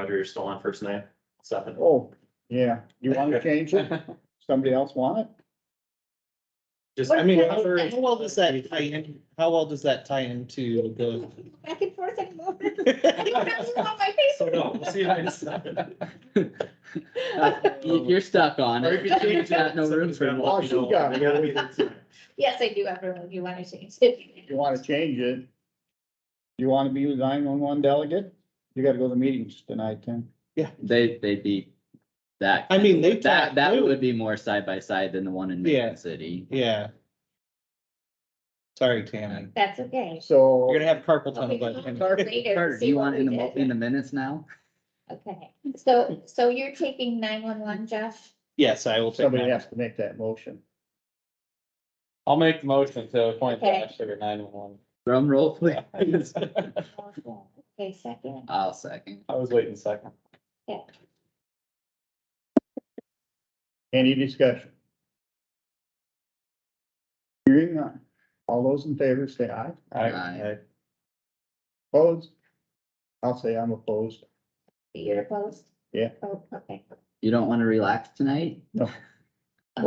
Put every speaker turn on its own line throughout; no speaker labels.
Roger, you're still on first name, seven.
Oh, yeah, you wanna change it? Somebody else want it?
Just,
I mean,
how
how how well
old
does
is
that tie in, how well does that tie into the?
Back and forth anymore. I didn't have you on my
So
face.
no, we'll see you guys seven.
You- You're stuck on
Or if
it.
you change
Got
that,
no room
somebody's
for
gonna
it.
Oh,
let
she
me know.
got it.
We gotta be there tonight.
Yes, I do, everyone, if you want to change it.
If you wanna change it, you wanna be the nine one one delegate? You gotta go to meetings tonight, Tim.
They, they'd be that.
I mean, they.
That,
tie-
that
they
would be more side by side than the one in
Yeah.
Mason City.
Yeah. Sorry, Tammy.
That's okay.
So.
You're gonna have carpal
We
tunnel.
can
but-
talk later,
Carter, do
see
you
what
want
we
in the, mo-
did.
in the minutes now?
Okay, so, so you're taking nine one one, Josh?
Yes, I will take
Somebody
that.
has to make that motion.
I'll make the motion to appoint
Okay.
Josh to the nine one
Drum roll, please.
one.
Okay, second,
I'll second.
I was waiting a second.
Any discussion? Hearing none. All those in favor say aye.
Aye.
Opposed? I'll say I'm opposed.
you're opposed?
Yeah.
Oh, okay.
You don't want to relax tonight?
Well,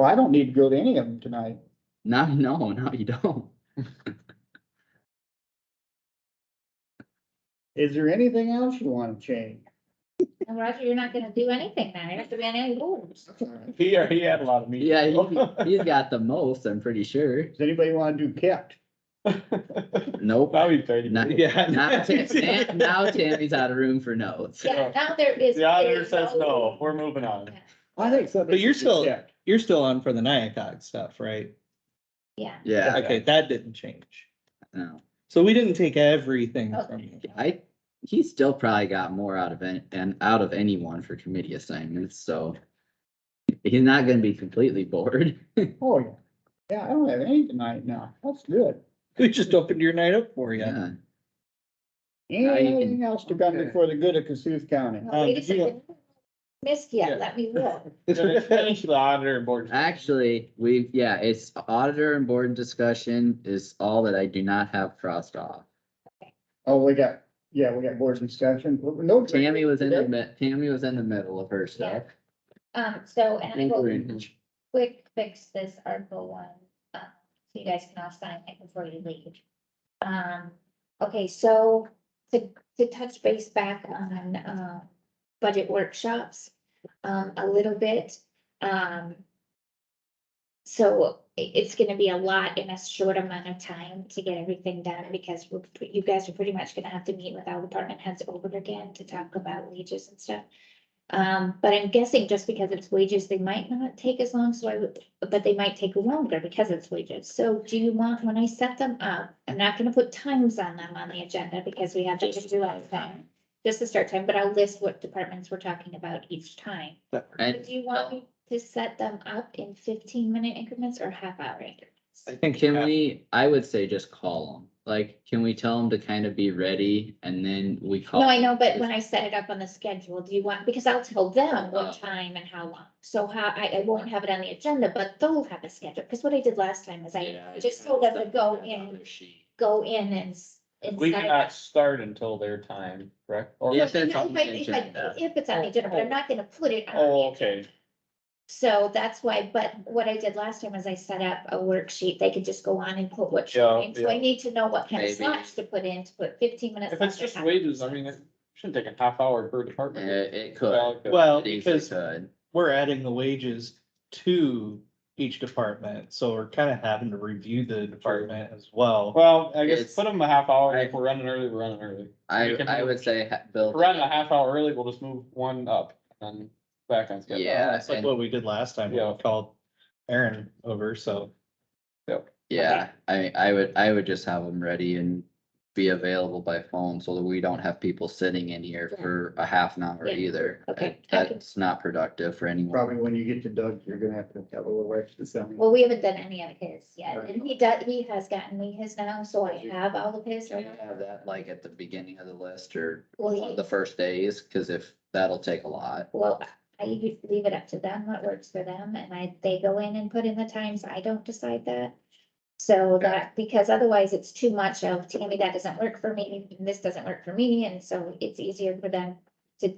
I don't need to go to any of them tonight.
No, no, no, you don't.
Is there anything else you wanna change?
And Roger, you're not gonna do anything now, you don't have to be on any rules.
He, uh, he had a lot of meetings.
Yeah, he, he's got the most, I'm pretty sure.
Does anybody wanna do kept?
Nope.
Now he's thirty.
Not,
Yeah.
not Tam- Tam- now Tammy's out of room for notes.
Yeah, now there is.
The auditor says no, we're moving on.
I think so.
But you're still- You're still on for the Nyakog stuff, right?
Yeah,
Yeah,
Okay, that didn't change.
no.
So we didn't take everything
Okay.
from you.
I, he still probably got more out of it and out of anyone for committee assignments, so. He's not gonna be completely bored.
Oh, yeah. Yeah, I don't have any tonight now. That's good.
We just opened your night up for you.
Yeah, Now you can-
Anything else to come
Okay.
before the good of Cassuth County?
No,
Um,
wait a
did you-
second. Missed yet,
Yeah.
let me look.
Gonna Finish the auditor and board.
actually, we, yeah, it's auditor and board discussion is all that I do not have crossed off.
Oh, we got, yeah, we got board discussion. No.
Tammy was in the,
today.
mi- Tammy was in the middle of her stuff.
Um, so, and I will
including-
quick fix this article one, uh, so you guys can all sign it before you leave. Um, okay, so to, to touch base back on, uh, budget workshops, um, a little bit, um. So i- it's gonna be a lot in a short amount of time to get everything done because we're, pre- you guys are pretty much gonna have to meet with all department heads over again to talk about wages and stuff. Um, but I'm guessing just because it's wages, they might not take as long, so I would, but they might take longer because it's wages. So do you want, when I set them up, I'm not gonna put times on them on the agenda because we have to just do all the time. Just the start time, but I'll list what departments we're talking about each time.
And
Do you want me to set them up in fifteen minute increments or half hour increments?
I think
can we, I would say just call them, like, can we tell them to kind of be ready and then we call?
No,
Oh,
I know, but when I set it up on the schedule, do you want, because I'll tell them
Oh.
what time and how long. So how, I, I won't have it on the agenda, but they'll have a schedule, because what I did last time is I
Yeah,
just told them to go
that's
in,
another sheet.
go in and. s- and
We
set it
cannot
up.
start until their time, correct? Or-
Yes.
No,
that's
no,
on
if I-
the
if I-
agenda.
If it's on the
Oh,
agenda, but I'm
oh.
not gonna put it on. the
Oh,
agenda.
okay.
So that's why, but what I did last time is I set up a worksheet, they could just go on and put what. she
Yeah,
needs. So I
yeah.
need to know what kind of
Maybe.
slots to put in, to put fifteen minutes.
If it's
slots or
just
half
wages, I
hours.
mean, it shouldn't take a half hour per
Uh,
department.
it
Well,
could.
it could.
Well,
It easily
because
could.
we're adding the wages to each department, so we're kind of having to review the department as well.
Well, I guess
It's-
put them a half hour.
I-
If we're running early, we're running early.
I,
we can
I would say, ha-
If
build.
we're running a half hour early, we'll just move one up and back on schedule.
Yeah,
That's like
and-
what we did last time, we
Yeah.
called Aaron over, so.
yeah, I, I would, I would just have them ready and be available by phone so that we don't have people sitting in here
Yeah.
for a half an hour
Yeah,
either.
okay,
That-
I can-
That's not productive for anyone.
Probably when you get to Doug, you're gonna have to have a little extra something.
Well, we haven't done any of his yet, and he does, he has gotten me his now, so I have all of his.
Can you have that like at the beginning of the list or
Well,
one of the
he-
first days, cause if, that'll take a lot.
well, I usually leave it up to them, what works for them, and I, they go in and put in the times, I don't decide that. So that, because otherwise it's too much of, Tammy, that doesn't work for me, and this doesn't work for me, and so it's easier for them to